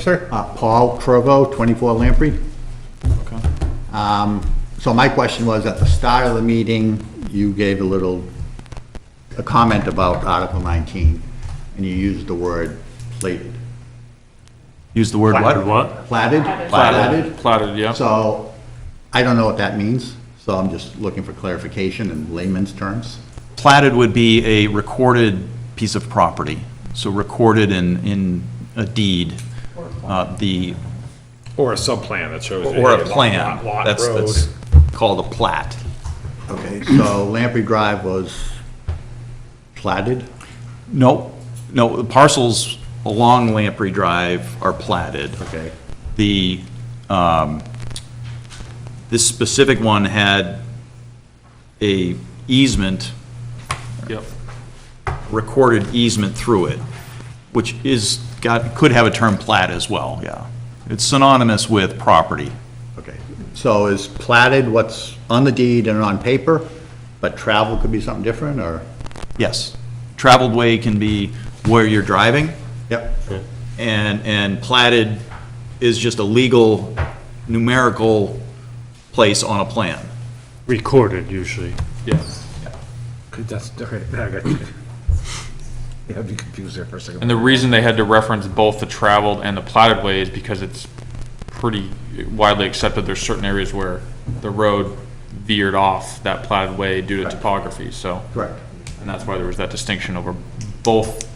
Sir? Uh, Paul Provo, 24 Lamprey. Um, So my question was, at the start of the meeting, you gave a little, a comment about Article 19, and you used the word plated. Use the word Platted what? what? Platted? Platted. Platted, yeah. So I don't know what that means, so I'm just looking for clarification in layman's terms. Platted would be a recorded piece of property, so recorded in, in a deed, uh, the, Or a subplan that shows. or hey, a lot- plan. lot- lot, That's, road. that's called a plat. Okay, so Lamprey Drive was platted? No, no, the parcels along Lamprey Drive are platted. Okay. The, um, this specific one had a easement Yep. recorded easement through it, which is, got, could have a term plat as well, yeah. It's synonymous with property. Okay, so is platted what's on the deed and on paper, but travel could be something different, or? Yes. Traveled way can be where you're driving, Yep. and, and platted is just a legal numerical place on a plan. Recorded usually. Yes. That's, okay, I got you. Yeah, I'd be confused there for a second. And the reason they had to reference both the traveled and the platted way is because it's pretty widely accepted there's certain areas where the road veered off that platted way due to topography, so. Correct. And that's why there was that distinction over both,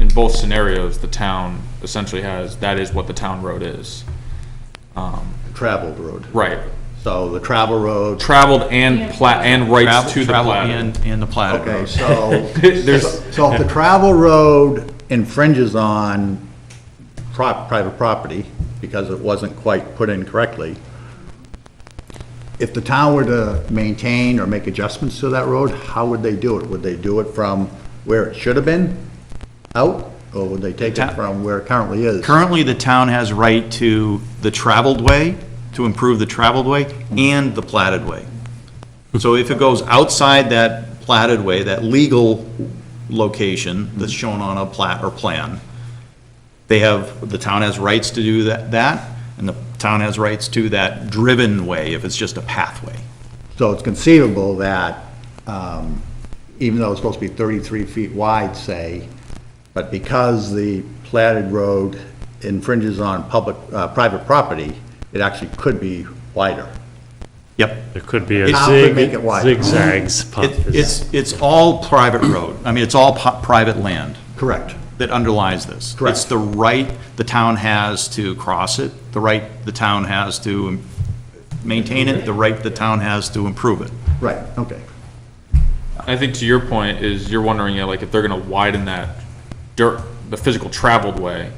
in both scenarios, the town essentially has, that is what the town road is. Traveled road. Right. So the travel road, Traveled and plat, and rights Travel- to the travel platted. And, and the platted okay, road. so, There's, so if the travel road infringes on prop, private property, because it wasn't quite put in correctly, if the town were to maintain or make adjustments to that road, how would they do it? Would they do it from where it should have been, out, or would they take it Ta- from where it currently is? Currently, the town has right to the traveled way, to improve the traveled way, and the platted way. So if it goes outside that platted way, that legal location that's shown on a plat or plan, they have, the town has rights to do that, that, and the town has rights to that driven way if it's just a pathway. So it's conceivable that, um, even though it's supposed to be 33 feet wide, say, but because the platted road infringes on public, uh, private property, it actually could be wider. Yep. It could be a It's- How could make it zig, wider? zigzags. puff It- is- It's, it's all private road. I mean, it's all pu- private land. Correct. that underlies this. Correct. It's the right the town has to cross it, the right the town has to maintain it, the right the town has to improve it. Right, okay. I think to your point is you're wondering, you know, like if they're gonna widen that dirt, the physical traveled way,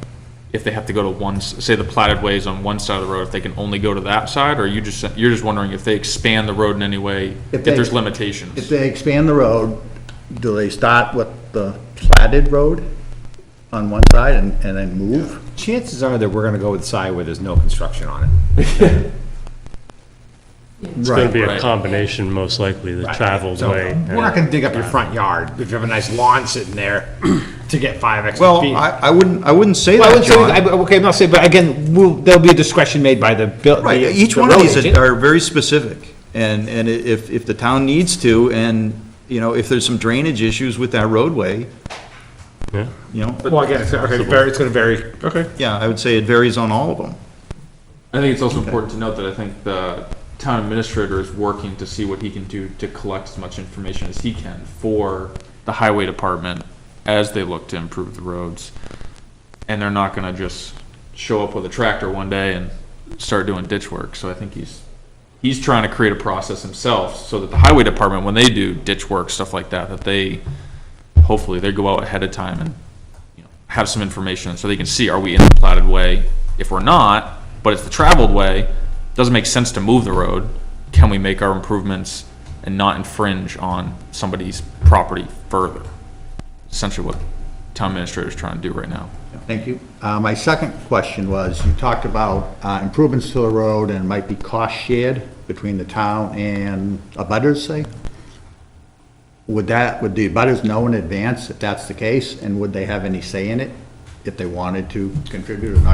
if they have to go to one, s- say the platted ways on one side of the road, if they can only go to that side, or you just, you're just wondering if they expand the road in any way, if they- there's If limitations. they expand the road, do they start with the platted road on one side and, and then move? Chances are that we're gonna go with the side where there's no construction on it. It's gonna Right. be a Right. combination, most likely, the traveled So, way. We're not gonna dig up your front yard if you have a nice lawn sitting there to get five extra Well, feet. I, I wouldn't, I wouldn't say Well, I that, would say, John. I- okay, I'm not saying, but again, we'll, there'll be a discretion made by the. bill- Right, the- each the one of road these agent. are very specific, and, and i- if, if the town needs to, and, you know, if there's some drainage issues with that roadway, Yeah. you know, Well, again, it's, okay, very- it's gonna vary. Okay. yeah, I would say it varies on all of them. I think it's also important to note that I think the town administrator is working to see what he can do to collect as much information as he can for the highway department as they look to improve the roads. And they're not gonna just show up with a tractor one day and start doing ditch work, so I think he's, he's trying to create a process himself so that the highway department, when they do ditch work, stuff like that, that they, hopefully, they go out ahead of time and you know, have some information so they can see, are we in the platted way? If we're not, but it's the traveled way, doesn't make sense to move the road. Can we make our improvements and not infringe on somebody's property further? Essentially what town administrator's trying to do right now. Thank you. Uh, My second question was, you talked about uh, improvements to the road and might be cost shared between the town and abutters, say? Would that, would the abutters know in advance if that's the case, and would they have any say in it if they wanted to contribute or not